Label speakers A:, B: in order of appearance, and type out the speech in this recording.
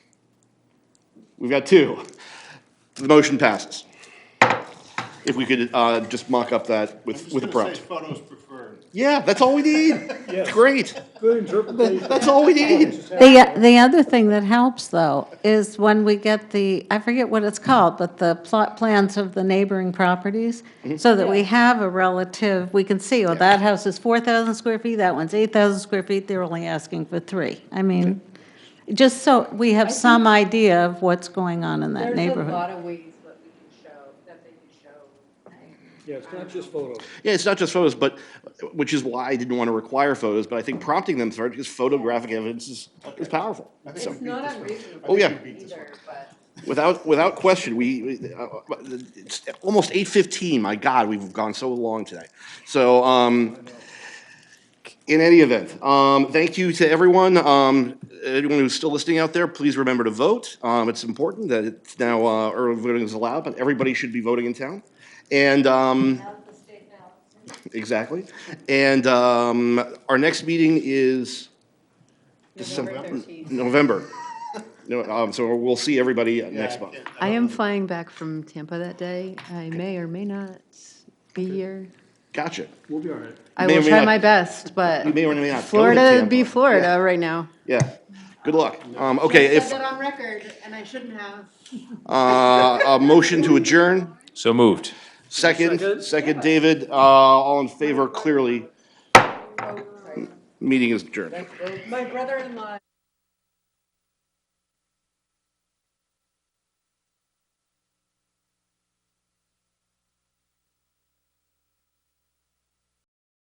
A: We've got two. The motion passes. If we could uh, just mock up that with, with a prompt.
B: Photos preferred.
A: Yeah, that's all we need. Great.
C: Good interpretation.
A: That's all we need.
D: The, the other thing that helps, though, is when we get the, I forget what it's called, but the plot plans of the neighboring properties, so that we have a relative, we can see, oh, that house is 4,000 square feet, that one's 8,000 square feet, they're only asking for three. I mean, just so we have some idea of what's going on in that
E: There's a lot
D: neighborhood.
E: of ways that we can show, that they can show.
C: Yeah, it's not just photos.
A: Yeah, it's not just photos, but, which is why I didn't want to require photos, but I think prompting them for it, because photographic evidence is, is powerful. So,
E: It's not unreasonable.
A: Oh, yeah.
E: Either, but.
A: without, without question, we, we- uh, uh, it's almost eight fifteen, my God, we've gone so long today. So, um, in any event, um, thank you to everyone. Um, anyone who's still listening out there, please remember to vote. Um, it's important that it's now, uh, early voting is allowed, but everybody should be voting in town. And, um, Exactly. And um, our next meeting is December, November. No, um, so we'll see everybody next month.
E: I am flying back from Tampa that day. I may or may not be here.
A: Gotcha.
C: We'll be all right.
E: I
A: May or
E: will
A: may
E: try
A: not-
E: my best, but
A: You may or may not go to
E: Florida
A: Tampa.
E: be
A: Yeah.
E: Florida right now.
A: Yeah. Good luck. Um, okay, if,
E: on record, and I shouldn't have.
A: uh, a motion to adjourn,
F: So moved.
A: second, second, David, uh, all in favor, clearly. Meeting is adjourned.
E: My brother-in-law